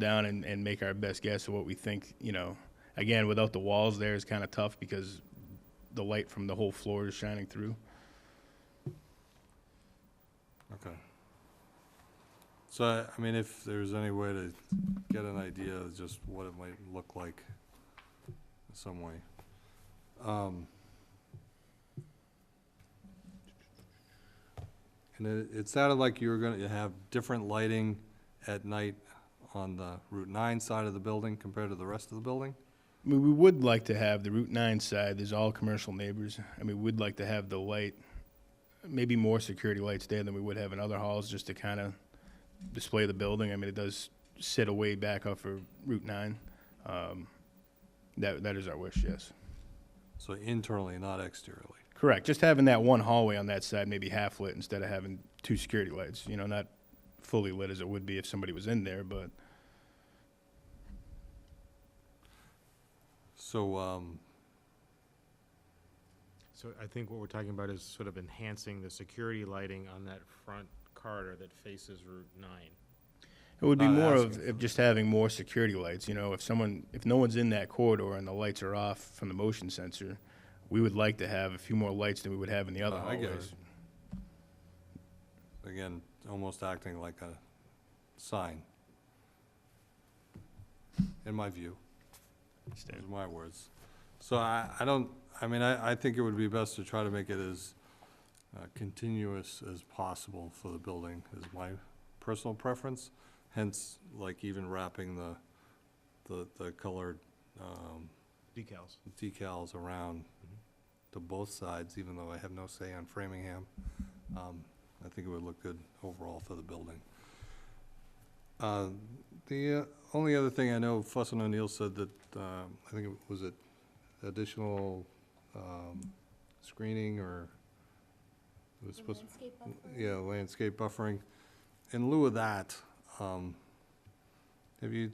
down and, and make our best guess of what we think. You know, again, without the walls there is kind of tough because the light from the whole floor is shining through. Okay. So, I- I mean, if there's any way to get an idea of just what it might look like in some way. Um, And it, it sounded like you were gonna have different lighting at night on the Route nine side of the building compared to the rest of the building? I mean, we would like to have the Route 9 side, there's all commercial neighbors. I mean, we'd like to have the light, maybe more security lights there than we would have in other halls just to kind of display the building. I mean, it does sit away back off of Route 9. Um, that, that is our wish, yes. So internally, not exteriorly. Correct. Just having that one hallway on that side, maybe half lit instead of having two security lights. You know, not fully lit as it would be if somebody was in there, but So, um, So I think what we're talking about is sort of enhancing the security lighting on that front corridor that faces Route 9. It would be Not more of asking if just having more security lights, you know, if someone, if no one's in that corridor and the lights are off from the motion sensor, we would like to have a few more lights than we would have in the other Uh, I get hallways. it. again, almost acting like a sign. In my view, those are my words. So I, I don't, I mean, I, I think it would be best to try to make it as uh, continuous as possible for the building, is my personal preference. Hence, like even wrapping the, the, the colored, um, Decals. decals around to both sides, even though I have no say on Framingham. Um, I think it would look good overall for the building. Uh, The uh, only other thing I know, Fuss and O'Neill said that, um, I think it was it additional um, screening or it was supposed to yeah, landscape buffering. In lieu of that, um, have you,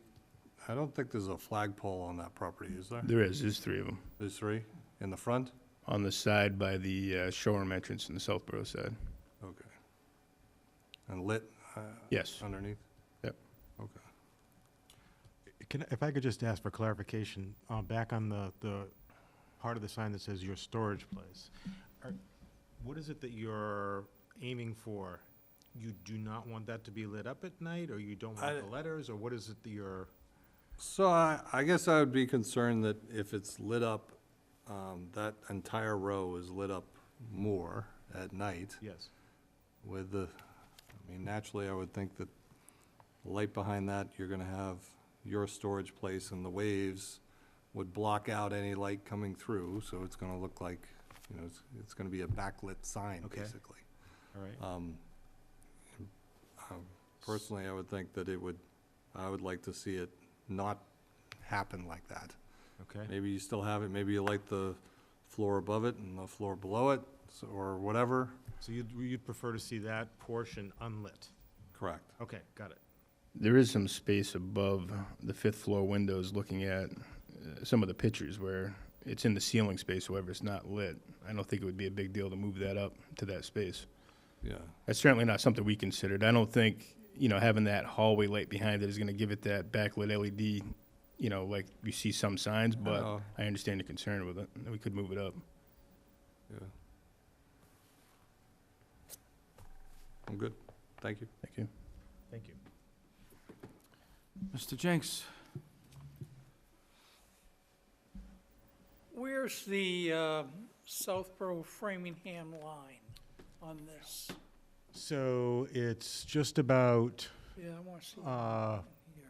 I don't think there's a flagpole on that property, is there? There is, there's three of them, There's three in the front? on the side by the uh, showroom entrance and the Southborough side. Okay. And lit uh, Yes, underneath? Yep. Okay. Can, if I could just ask for clarification, uh, back on the, the part of the sign that says your storage place, are- what is it that you're aiming for? You do not want that to be lit up at night, or you don't I- want the letters, or what is it that you're? So I, I guess I would be concerned that if it's lit up, um, that entire row is lit up more at night Yes. with the, I mean, naturally, I would think that light behind that, you're gonna have your storage place and the waves would block out any light coming through, so it's gonna look like, you know, it's, it's gonna be a backlit sign, Okay. basically. All right. Um, um, Personally, I would think that it would, I would like to see it not happen like that. Okay. Maybe you still have it, maybe you light the floor above it and the floor below it, so- or whatever. So you'd, you'd prefer to see that portion unlit? Correct. Okay, got it. there is some space above the fifth floor windows looking at uh, some of the pictures where it's in the ceiling space, however, it's not lit. I don't think it would be a big deal to move that up to that space. Yeah, That's certainly not something we considered. I don't think, you know, having that hallway light behind it is gonna give it that backlit LED, you know, like you see some signs, but know. I understand the concern with it, and we could move it up. yeah. I'm good. Thank you. Thank you. Thank you. Mr. Jenks, Where's the uh, Southborough Framingham line on this? So it's just about Yeah, I want to see that uh, here.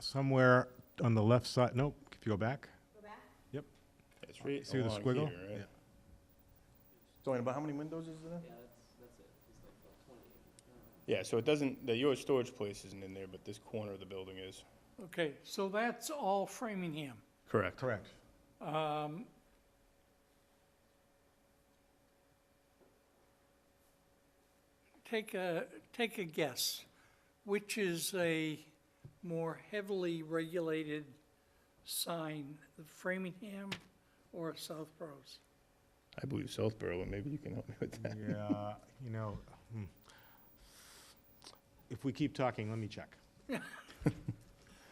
somewhere on the left side, nope, if you go back. It's right See the along squiggle? right? here, right? Yeah. about how many windows is there? Yeah, so it doesn't, the, your storage place isn't in there, but this corner of the building is. Okay, so that's all Framingham. Correct. Correct. Um, Take a, take a guess, which is a more heavily regulated sign, the Framingham or Southborough's? I believe Southborough, and maybe you can help me with that. Yeah, you know, hmm. if we keep talking, let me check.